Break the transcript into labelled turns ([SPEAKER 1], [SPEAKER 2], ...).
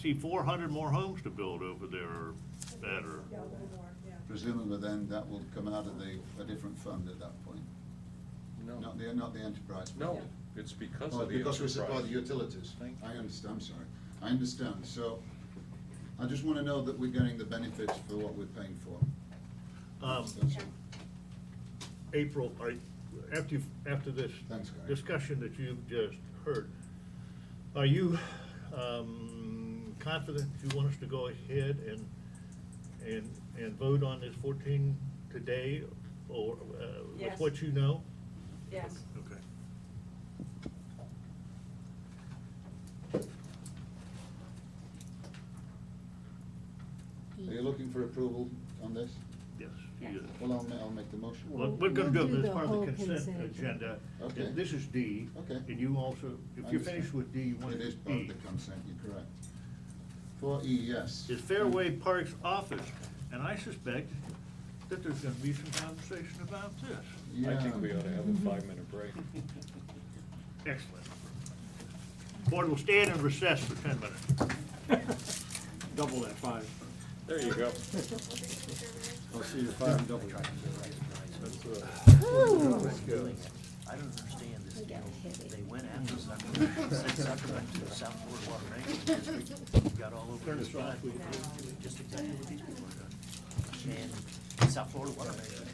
[SPEAKER 1] see four hundred more homes to build over there or better.
[SPEAKER 2] Yeah, a little more, yeah.
[SPEAKER 3] Presumably then that will come out of the, a different fund at that point,
[SPEAKER 4] No,
[SPEAKER 3] not the, not the enterprise. fund.
[SPEAKER 4] no, it's because
[SPEAKER 3] Oh,
[SPEAKER 4] of the
[SPEAKER 3] because we supply the
[SPEAKER 4] enterprise.
[SPEAKER 3] utilities.
[SPEAKER 4] Thank you.
[SPEAKER 3] I understand, I'm sorry. I understand, so I just want to know that we're getting the benefits for what we're paying for.
[SPEAKER 1] Um,
[SPEAKER 3] That's all.
[SPEAKER 1] April, are, you- after you, after this
[SPEAKER 3] Thanks, Gary.
[SPEAKER 1] discussion that you've just heard, are you, um, confident you want us to go ahead and, and, and vote on this fourteen today or, uh, with
[SPEAKER 5] Yes.
[SPEAKER 1] what you know?
[SPEAKER 5] Yes.
[SPEAKER 1] Okay.
[SPEAKER 3] Are you looking for approval on this?
[SPEAKER 1] Yes,
[SPEAKER 5] Yes.
[SPEAKER 1] yes.
[SPEAKER 3] Well, I'll, ma- I'll make the motion.
[SPEAKER 1] What we're gonna do
[SPEAKER 6] We'll do
[SPEAKER 1] is
[SPEAKER 6] the
[SPEAKER 1] part of the
[SPEAKER 6] whole
[SPEAKER 1] consent
[SPEAKER 6] consent.
[SPEAKER 1] agenda.
[SPEAKER 3] Okay.
[SPEAKER 1] This is D.
[SPEAKER 3] Okay.
[SPEAKER 1] And you also, if you're finished with D, you want to
[SPEAKER 3] It
[SPEAKER 1] do
[SPEAKER 3] is part of
[SPEAKER 1] E.
[SPEAKER 3] the consent, you're correct. Four E, yes.
[SPEAKER 1] Is Fairway Parks Office, and I suspect that there's gonna be some conversation about this.
[SPEAKER 3] Yeah.
[SPEAKER 4] I think we ought to have a five-minute break.
[SPEAKER 1] Excellent. Board will stand in recess for ten minutes. Double that five.
[SPEAKER 4] There you go.
[SPEAKER 3] I'll see you at five and double.
[SPEAKER 7] I don't understand this deal. They went after Zuckerman, sent Zuckerman to the South Boardwalk Ranking District, got all over his butt. Just exactly what these people are doing. And South Florida Water Management